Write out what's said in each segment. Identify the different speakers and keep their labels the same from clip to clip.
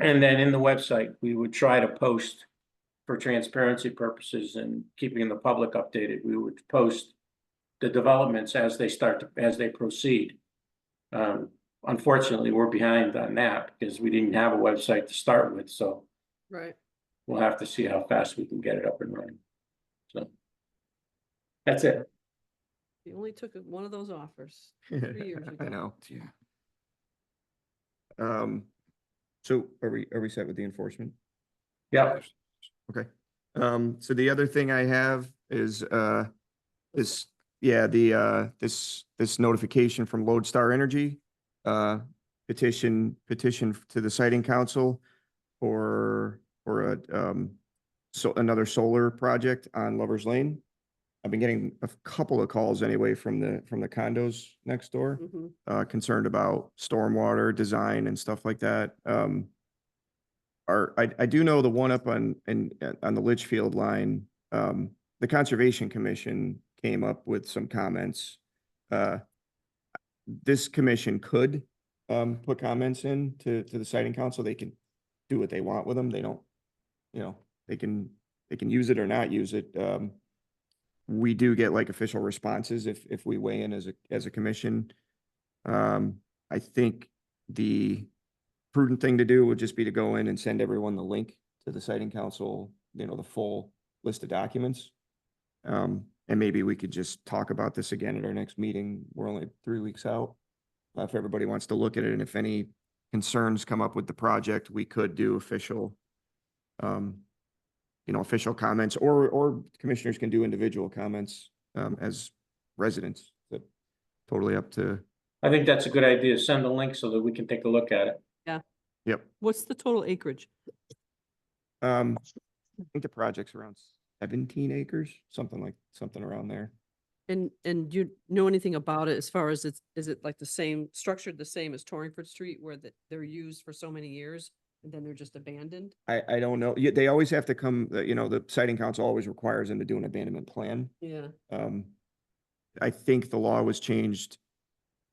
Speaker 1: And then in the website, we would try to post for transparency purposes and keeping the public updated, we would post the developments as they start, to- as they proceed. Um, unfortunately, we're behind on that because we didn't have a website to start with, so
Speaker 2: Right.
Speaker 1: we'll have to see how fast we can get it up and running. So. That's it.
Speaker 2: You only took one of those offers. years
Speaker 3: I
Speaker 2: ago.
Speaker 3: know, yeah. Um, so are we, are we set with the enforcement?
Speaker 1: Yeah,
Speaker 3: Okay. Um, so the other thing I have is, uh, this, yeah, the, uh, this, this notification from Lodestar Energy, uh, petition, petition to the siting council for, for a, um, so another solar project on Lover's Lane. I've been getting a couple of calls anyway from the, from the condos next door
Speaker 2: Mhm.
Speaker 3: uh, concerned about stormwater design and stuff like that. Um, are, I, I do know the one up on, in, uh, on the Litchfield line, um, the Conservation Commission came up with some comments. Uh, this commission could, um, put comments in to, to the siting council. They can do what they want with them. They don't, you know, they can, they can use it or not use it. Um, we do get like official responses if, if we weigh in as a, as a commission. Um, I think the prudent thing to do would just be to go in and send everyone the link to the siting council, you know, the full list of documents. Um, and maybe we could just talk about this again at our next meeting. We're only three weeks out. Uh, If everybody wants to look at it and if any concerns come up with the project, we could do official, um, you know, official comments or, or commissioners can do individual comments, um, as residents. But Totally up to
Speaker 1: I think that's a good idea. Send the link so that we can take a look at it.
Speaker 3: Yep.
Speaker 2: What's the total acreage?
Speaker 3: Um, I think the project's around seventeen acres, something like, something around there.
Speaker 2: And, and do you know anything about it as far as it's, is it like the same, structured the same as Torringford Street where that they're used for so many years and then they're just abandoned?
Speaker 3: I, I don't know. Yeah, they always have to come, uh, you know, the siting council always requires them to do an abandonment plan.
Speaker 2: Yeah.
Speaker 3: Um, I think the law was changed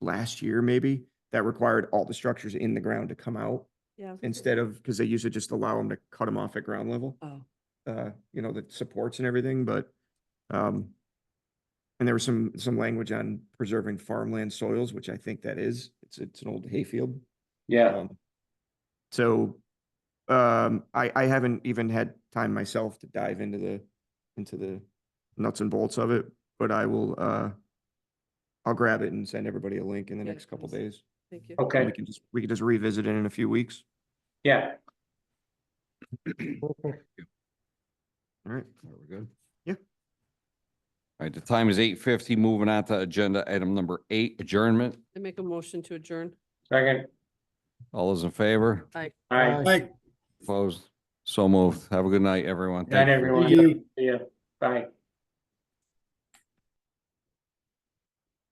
Speaker 3: last year, maybe, that required all the structures in the ground to come out
Speaker 2: Yeah. I think it-
Speaker 3: instead of, because they used to just allow them to cut them off at ground level.
Speaker 2: Oh,
Speaker 3: uh, you know, the supports and everything, but, um, and there was some, some language on preserving farmland soils, which I think that is, it's, it's an old hayfield.
Speaker 1: Yeah,
Speaker 3: Um, So, um, I, I haven't even had time myself to dive into the, into the nuts and bolts of it, but I will, uh, I'll grab it and send everybody a link in the
Speaker 2: Yeah,
Speaker 3: next couple
Speaker 2: please.
Speaker 3: days.
Speaker 2: thank you.
Speaker 3: and
Speaker 1: okay,
Speaker 3: We can just, we can just revisit it in a few weeks.
Speaker 1: yeah.
Speaker 3: All right.
Speaker 4: We're good.
Speaker 3: Yeah.
Speaker 4: All right, the time is eight fifty. Moving on to agenda item number eight, adjournment.
Speaker 2: I make a motion to adjourn.
Speaker 1: Second,
Speaker 4: All those in favor?
Speaker 1: all right.
Speaker 4: Opposed? So moved. Have a good night, everyone.
Speaker 1: Night,
Speaker 4: Thank you.
Speaker 1: everyone. See ya. Bye.